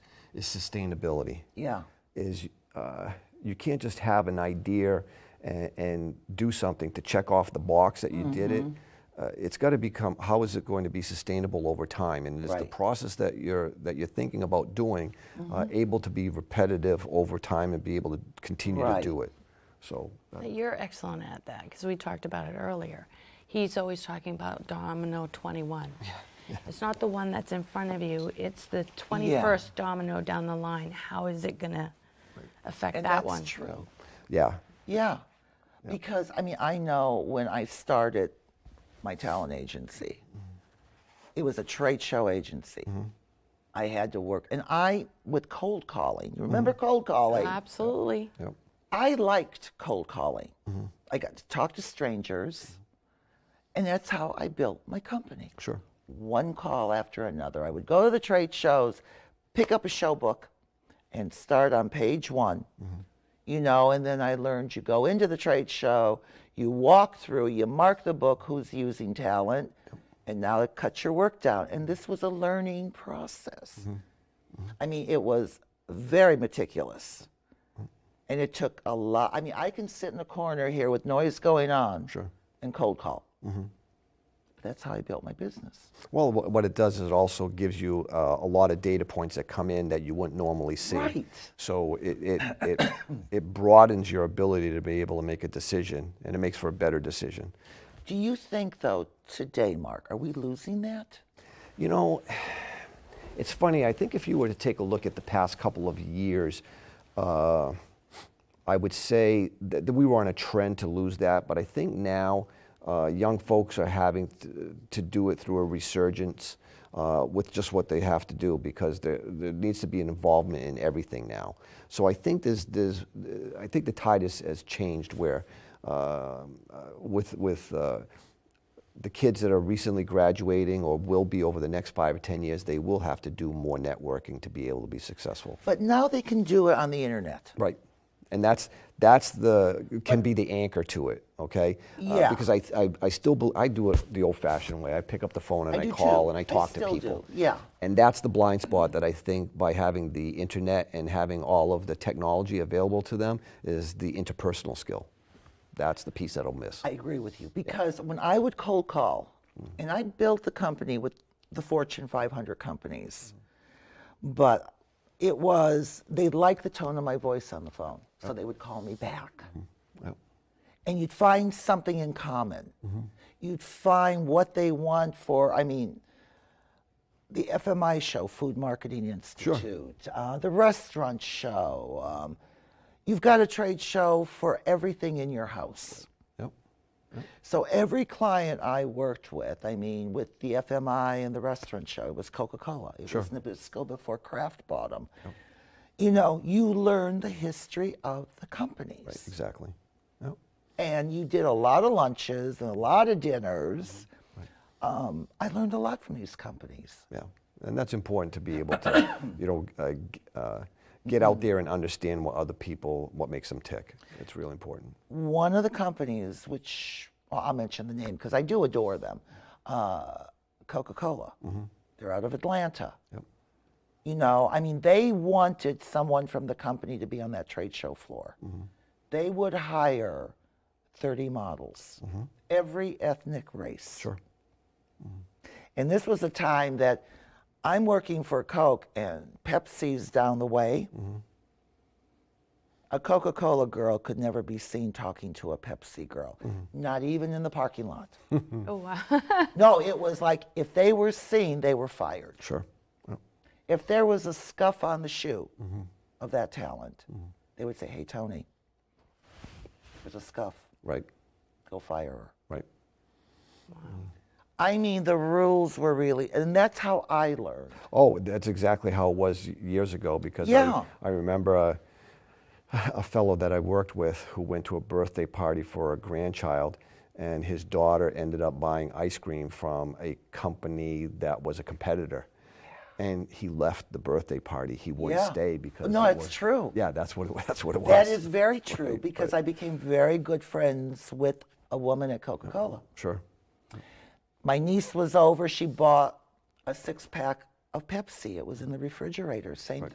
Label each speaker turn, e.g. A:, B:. A: is sustainability.
B: Yeah.
A: Is uh, you can't just have an idea and, and do something to check off the box that you did it.
B: Mm-hmm.
A: Uh, it's got to become how is it going to be sustainable over time, and is the
B: Right.
A: process that you're that you're thinking about doing uh,
B: Mm-hmm.
A: able to be repetitive over time and be able to continue
B: Right.
A: to do it? So uh,
C: But You're excellent at that because we talked about it earlier. He's always talking about Domino 21. It's not the one that's in front of you, it's the 21st domino down the line. How is it going to affect
B: And
C: that
B: that's
C: one?
B: true.
A: yeah,
B: Yeah. Because, I mean, I know when I started my talent agency, it was a trade show agency. I had to work. And I, with cold calling, you remember cold calling?
C: Absolutely.
A: yep,
B: I liked cold calling. I got to talk to strangers, and that's how I built my company.
A: sure.
B: One call after another. I would go to the trade shows, pick up a show book, and start on page one. You know, and then I learned you go into the trade show, you walk through, you mark the book, who's using talent, and now it cuts your work down. And this was a learning process. I mean, it was very meticulous. And it took a lot. I mean, I can sit in a corner here with noise going on and cold call. That's how I built my business.
A: Well, wh- what it does is it also gives you uh, a lot of data points that come in that you wouldn't normally see.
B: Right.
A: So it, it, it, it broadens your ability to be able to make a decision and it makes for a better decision.
B: Do you think, though, today, Mark, are we losing that?
A: You know, it's funny. I think if you were to take a look at the past couple of years, uh, I would say that, that we were on a trend to lose that. But I think now uh, young folks are having th- to do it through a resurgence uh, with just what they have to do because there, there needs to be an involvement in everything now. So I think there's, there's I think the tide has, has changed where uh, with with uh, the kids that are recently graduating or will be over the next five or 10 years, they will have to do more networking to be able to be successful.
B: But now they can do it on the internet.
A: Right. And that's, that's the, can be the anchor to it, okay? Uh,
B: Yeah.
A: because I, I, I still, bel I do it the old fashioned way. I pick up the phone and
B: I
A: I,
B: do
A: call
B: too.
A: and
B: I
A: I talk to
B: still
A: people.
B: do, yeah.
A: And that's the blind spot that I think by having the internet and having all of the technology available to them is the interpersonal skill. That's the piece that'll miss.
B: I agree with you because when I would cold call, and I built the company with the Fortune 500 companies, but it was they liked the tone of my voice on the phone, so they would call me back.
A: Yep.
B: And you'd find something in common. You'd find what they want for, I mean, the FMI show, Food Marketing Institute, uh, the restaurant show. Um, you've got a trade show for everything in your house.
A: Yep.
B: So every client I worked with, I mean, with the FMI and the restaurant show, it was Coca Cola. It was Nabisco before Kraft bought 'em. You know, you learn the history of the companies.
A: Exactly. Yep.
B: And you did a lot of lunches and a lot of dinners. Um, I learned a lot from these companies.
A: Yeah, and that's important to be able to, you know, uh, g- uh, get out there and understand what other people, what makes them tick. It's really important.
B: one of the companies, which well, I'll mention the name because I do adore them, uh, Coca Cola. They're out of Atlanta. You know, I mean, they wanted someone from the company to be on that trade show floor. They would hire 30 models, every ethnic race.
A: Sure.
B: And this was a time that I'm working for Coke and Pepsi's down the way. A Coca Cola girl could never be seen talking to a Pepsi girl, not even in the parking lot.
C: Oh, wow.
B: no, it was like if they were seen, they were fired.
A: Sure. Yep.
B: If there was a scuff on the shoe of that talent, they would say, Hey, Tony, there's a scuff.
A: Right.
B: Go fire her.
A: Right.
B: I mean, the rules were really, and that's how I learned.
A: Oh, that's exactly how it was years ago because
B: Yeah.
A: I, I remember a, a fellow that I worked with who went to a birthday party for a grandchild, and his daughter ended up buying ice cream from a company that was a competitor. And he left the birthday party. He wouldn't
B: Yeah.
A: stay because
B: No,
A: it
B: it's
A: was-
B: true.
A: Yeah, that's what it, wa- that's what it was.
B: That is very true because I became very good friends with a woman at Coca Cola.
A: sure.
B: My niece was over, she bought a six pack of Pepsi. It was in the refrigerator, same